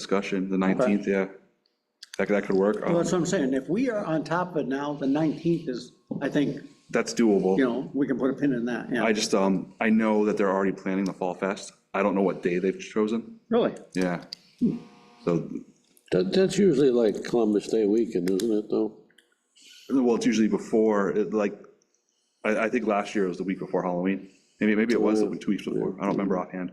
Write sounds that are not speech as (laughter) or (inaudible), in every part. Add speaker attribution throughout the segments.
Speaker 1: discussion, the 19th, yeah. That, that could work.
Speaker 2: Well,
Speaker 1: Um,
Speaker 2: that's what I'm saying, if we are on top of it now, the 19th is, I think,
Speaker 1: That's doable.
Speaker 2: you know, we can put a pin in that, yeah.
Speaker 1: I just, um, I know that they're already planning the Fall Fest. I don't know what day they've chosen.
Speaker 2: Really?
Speaker 1: Yeah.
Speaker 3: Hmm.
Speaker 1: So,
Speaker 3: That, that's usually like Columbus Day weekend, isn't it, though?
Speaker 1: well, it's usually before, it, like, I, I think last year was the week before Halloween. Maybe, maybe it was the week- two weeks before. I don't remember offhand.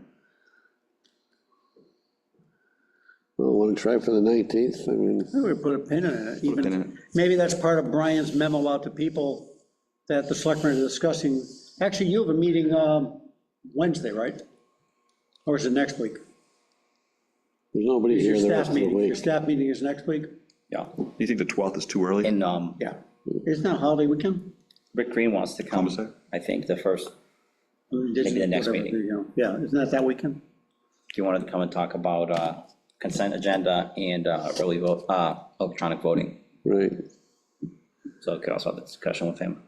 Speaker 3: Well, want to try for the 19th? I mean,
Speaker 2: We would put a pin in it,
Speaker 1: pin in it.
Speaker 2: even, maybe that's part of Brian's memo out to people that the selectmen are discussing. Actually, you have a meeting um, Wednesday, right? Or is it next week?
Speaker 3: there's nobody
Speaker 2: Your
Speaker 3: here the rest
Speaker 2: staff
Speaker 3: of the
Speaker 2: meeting, your
Speaker 3: week.
Speaker 2: staff meeting is next week?
Speaker 4: Yeah,
Speaker 1: Do you think the 12th is too early?
Speaker 4: and um,
Speaker 2: Yeah. Isn't that holiday weekend?
Speaker 4: Rick Green wants to come,
Speaker 1: Columbus Day?
Speaker 4: I think, the first,
Speaker 2: I mean, this is
Speaker 4: Maybe the next
Speaker 2: whatever,
Speaker 4: meeting.
Speaker 2: you know, Yeah, isn't that that weekend?
Speaker 4: he wanted to come and talk about uh, consent agenda and uh, early vote, uh, electronic voting.
Speaker 3: Right.
Speaker 4: So I could also have a discussion with him.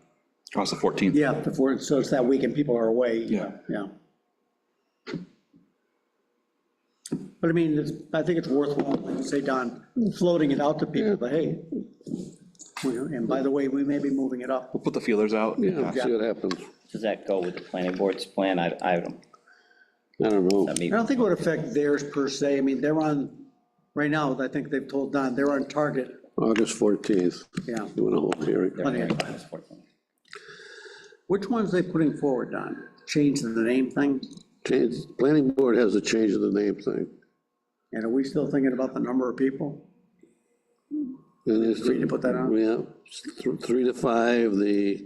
Speaker 1: Oh, it's the 14th.
Speaker 2: Yeah, before, so it's that weekend, people are away.
Speaker 1: Yeah.
Speaker 2: Yeah. But I mean, it's, I think it's worthwhile, like you say, Don, floating it out to people, but hey, we- and by the way, we may be moving it up.
Speaker 1: We'll put the feelers out.
Speaker 3: Yeah, see what happens.
Speaker 4: Does that go with the planning board's plan? I, I don't,
Speaker 3: I don't know.
Speaker 4: I
Speaker 2: I
Speaker 4: mean,
Speaker 2: don't think it would affect theirs per se. I mean, they're on, right now, I think they've told Don, they're on target,
Speaker 3: August 14th,
Speaker 2: yeah.
Speaker 3: doing a whole hearing.
Speaker 4: they're
Speaker 2: Plenty of
Speaker 4: hearing about this work.
Speaker 2: Which ones they putting forward, Don? Change the name thing?
Speaker 3: Change, planning board has a change of the name thing.
Speaker 2: And are we still thinking about the number of people?
Speaker 3: And it's-
Speaker 2: Free to put that on?
Speaker 3: Yeah, th- three to five, the,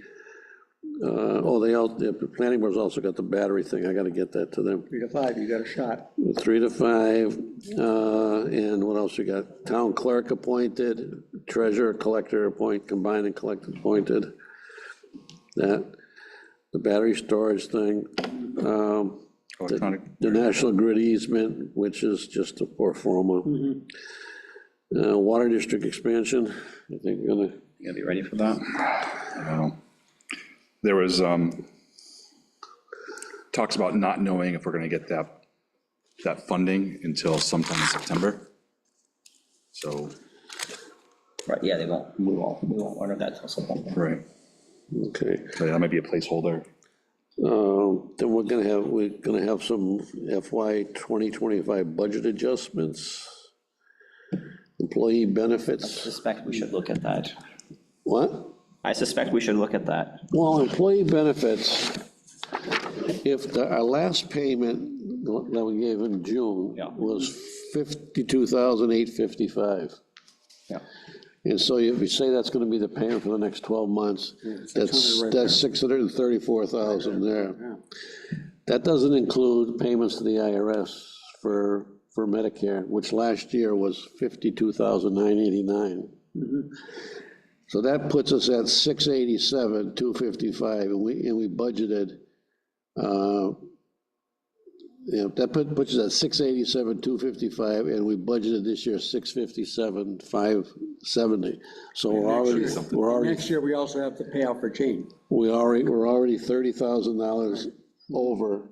Speaker 3: uh, oh, they all, the planning board's also got the battery thing. I got to get that to them.
Speaker 2: Three to five, you got a shot.
Speaker 3: Three to five, uh, and what else we got? Town clerk appointed, treasurer, collector appoint, combined and collector appointed. That, the battery storage thing, um,
Speaker 1: Electronic.
Speaker 3: the national grid easement, which is just a poor forma. Uh, Water district expansion, I think we're gonna,
Speaker 4: You gonna be ready for that?
Speaker 1: There was, um, talks about not knowing if we're gonna get that, that funding until sometime in September. So,
Speaker 4: Right, yeah, they won't, we won't, we won't order that till September.
Speaker 1: right,
Speaker 3: okay.
Speaker 1: So that might be a placeholder.
Speaker 3: Um, Then we're gonna have, we're gonna have some FY 2025 budget adjustments, employee benefits,
Speaker 4: Suspect we should look at that.
Speaker 3: what?
Speaker 4: I suspect we should look at that.
Speaker 3: Well, employee benefits, if the- our last payment that we gave in June
Speaker 4: Yeah.
Speaker 3: was 52,855.
Speaker 4: Yeah.
Speaker 3: And so if you say that's gonna be the payment for the next 12 months, that's, that's 634,000 there. That doesn't include payments to the IRS for, for Medicare, which last year was 52,989. So that puts us at 687, 255, and we, and we budgeted, uh, yeah, that put- puts us at 687, 255, and we budgeted this year 657, 570. So we're already, we're already,
Speaker 2: Next year, we also have to pay out for Jane.
Speaker 3: we already, we're already $30,000 over.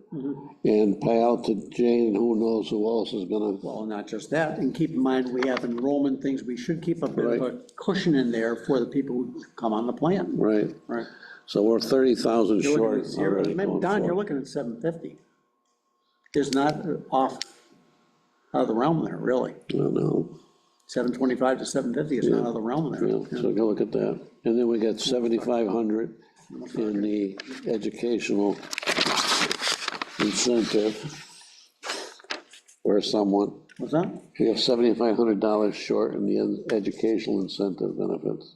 Speaker 3: And pay out to Jane, who knows who else is gonna,
Speaker 2: Well, not just that, and keep in mind, we have enrollment things, we should keep a bit of a cushion in there for the people who come on the plan,
Speaker 3: right?
Speaker 2: right?
Speaker 3: So we're 30,000
Speaker 2: You're looking
Speaker 3: short
Speaker 2: at zero.
Speaker 3: already.
Speaker 2: Remember,
Speaker 3: going
Speaker 2: Don, you're
Speaker 3: forward.
Speaker 2: looking at seven fifty. Is not uh, off, out of the realm there, really.
Speaker 3: I don't know.
Speaker 2: Seven twenty-five to seven fifty is not out of the realm
Speaker 3: Yeah,
Speaker 2: there.
Speaker 3: so go look at that. And then we got 7,500 in the educational incentive or someone.
Speaker 2: What's that?
Speaker 3: We have $7,500 short in the ed- educational incentive benefits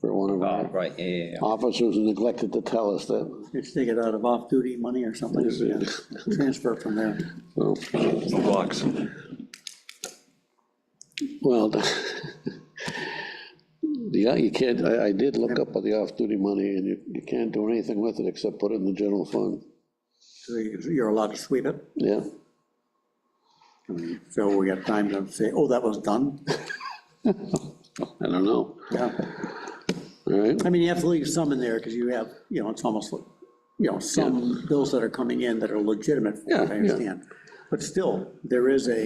Speaker 3: for one of
Speaker 4: Oh,
Speaker 3: our
Speaker 4: right, yeah, yeah, yeah.
Speaker 3: officers who neglected to tell us that.
Speaker 2: Just take it out of off-duty money or something, yeah. transfer from there.
Speaker 3: So,
Speaker 1: No blocks.
Speaker 3: Well, (laughs) the, yeah, you can't, I, I did look up on the off-duty money and you, you can't do anything with it except put it in the general fund.
Speaker 2: So you- You're allowed to sweep it.
Speaker 3: Yeah.
Speaker 2: So we got time to say, oh, that was done.
Speaker 3: I don't know,
Speaker 2: Yeah.
Speaker 3: all right?
Speaker 2: I mean, you have to leave some in there because you have, you know, it's almost like, you know, some bills that are coming in that are legitimate, from what I
Speaker 3: Yeah, yeah.
Speaker 2: understand. But still, there is a